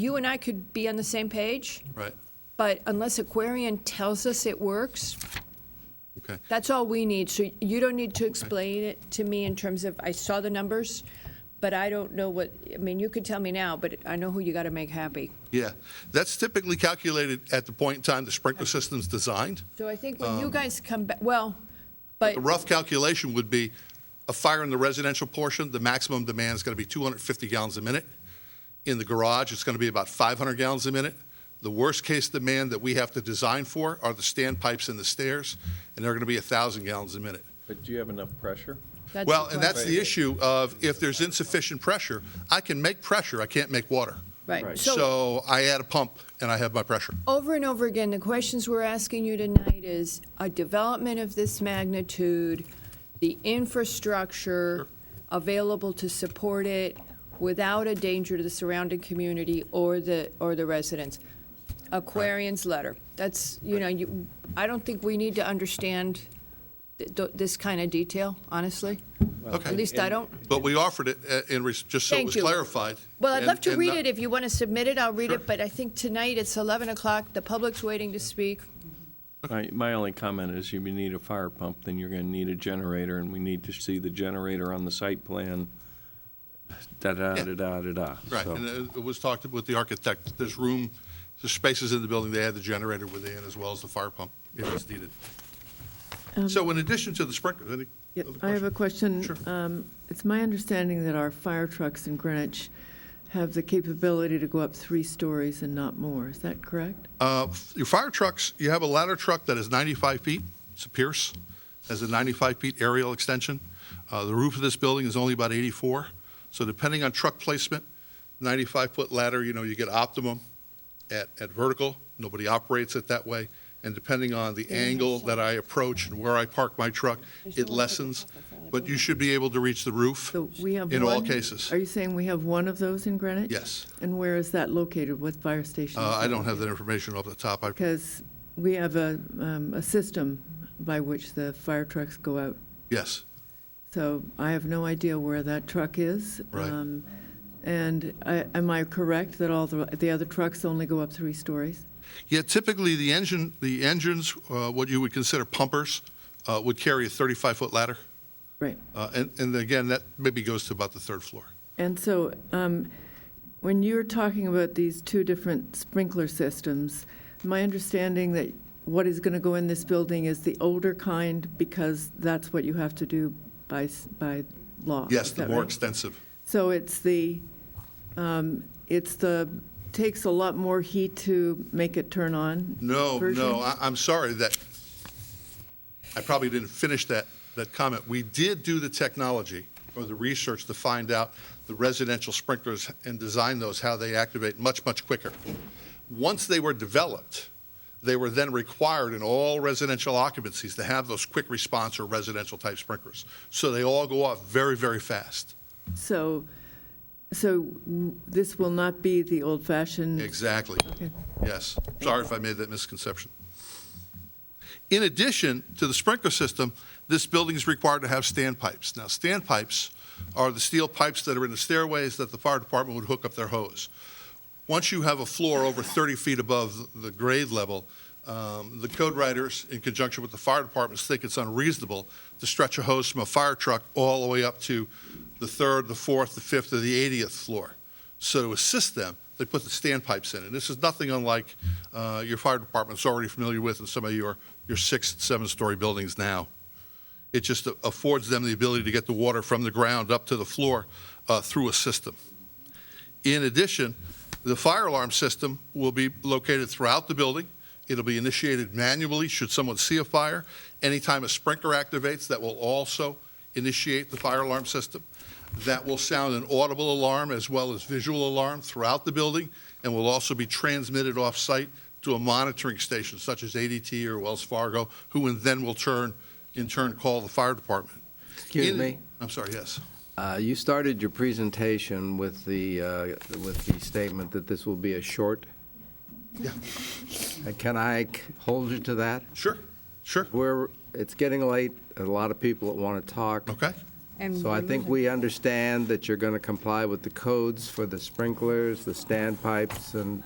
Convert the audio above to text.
you and I could be on the same page, Right, but unless Aquarian tells us it works, okay. that's all we need. So you don't need to explain it to me in terms of, I saw the numbers, but I don't know what, I mean, you could tell me now, but I know who you got to make happy. Yeah, that's typically calculated at the point in time the sprinkler system's designed. So I think when you Um, guys come back, well, but, A rough calculation would be a fire in the residential portion, the maximum demand is going to be 250 gallons a minute. In the garage, it's going to be about 500 gallons a minute. The worst-case demand that we have to design for are the standpipes and the stairs, and they're going to be 1,000 gallons a minute. But do you have enough pressure? that's Well, the and that's question. the issue of if there's insufficient pressure, I can make pressure, I can't make water. Right, so So I add a pump and I have my pressure. over and over again, the questions we're asking you tonight is a development of this magnitude, the infrastructure available to support it without a danger to the surrounding community or the, or the residents. Aquarian's letter, that's, you know, you, I don't think we need to understand th- th- this kind of detail, honestly. At Okay. least I don't. But we offered it uh, in, res- just so it Thank was you. clarified. Well, I'd and- love to and read not- it. If you want to submit it, I'll read Sure. it, but I think tonight it's 11 o'clock, the public's waiting to speak. My, my only comment is if you need a fire pump, then you're going to need a generator, and we need to see the generator on the site plan, da-da-da-da-da-da. Right, So- and it it was talked with the architect, there's room, there's spaces in the building, they had the generator within as well as the fire pump if it's needed. So in addition to the sprinkler, any Um, Yeah, other I have a questions? question. Sure. Um, It's my understanding that our fire trucks in Greenwich have the capability to go up three stories and not more. Is that correct? Uh, f- Your fire trucks, you have a ladder truck that is 95 feet, it's a Pierce, has a 95-feet aerial extension. Uh, The roof of this building is only about 84, so depending on truck placement, 95-foot ladder, you know, you get optimum at, at vertical, nobody operates it that way, and depending on the angle that I approach and where I park my truck, it lessens, but you should be able to reach the roof So we have in all one- cases. Are you saying we have one of those in Greenwich? Yes. And where is that located? What fire Uh, station? is I that don't have that located? information off the top, I Because we have a, um, a system by which the fire trucks go out. yes, So I have no idea where that truck is. Right. Um, And I- am I correct that all the, the other trucks only go up three stories? Yeah, typically, the engine, the engines, uh, what you would consider pumpers, uh, would carry a 35-foot ladder. Right. Uh, And, and again, that maybe goes to about the third floor. And so, um, when you're talking about these two different sprinkler systems, my understanding that what is going to go in this building is the older kind because that's what you have to do by, s- by law. Yes, is the that more right? extensive. So it's the, um, it's the, takes a lot more heat to make it turn on? No, version? no, I- I'm sorry that, I probably didn't finish that, that comment. We did do the technology or the research to find out the residential sprinklers and design those, how they activate much, much quicker. Once they were developed, they were then required in all residential occupancies to have those quick response or residential type sprinklers. So they all go off very, very fast. So, so w- this will not be the old-fashioned Exactly. Okay. Yes. Sorry if I made that misconception. In addition to the sprinkler system, this building is required to have standpipes. Now, standpipes are the steel pipes that are in the stairways that the fire department would hook up their hose. Once you have a floor over 30 feet above the grade level, um, the code writers, in conjunction with the fire departments, think it's unreasonable to stretch a hose from a fire truck all the way up to the third, the fourth, the fifth, or the 80th floor. So to assist them, they put the standpipes in. And this is nothing unlike uh, your fire department's already familiar with in some of your, your six, seven-story buildings now. It just affords them the ability to get the water from the ground up to the floor uh, through a system. In addition, the fire alarm system will be located throughout the building. It'll be initiated manually should someone see a fire. Anytime a sprinkler activates, that will also initiate the fire alarm system. That will sound an audible alarm as well as visual alarm throughout the building and will also be transmitted off-site to a monitoring station such as ADT or Wells Fargo, who and then will turn, in turn, call the fire department. Excuse In- me. I'm sorry, yes. Uh, You started your presentation with the, uh, with the statement that this will be a short. Yeah. Uh, Can I c- hold you to that? Sure, sure, We're, it's getting late, a lot of people that want to talk. okay. And So I think we understand that you're going to comply with the codes for the sprinklers, the standpipes, and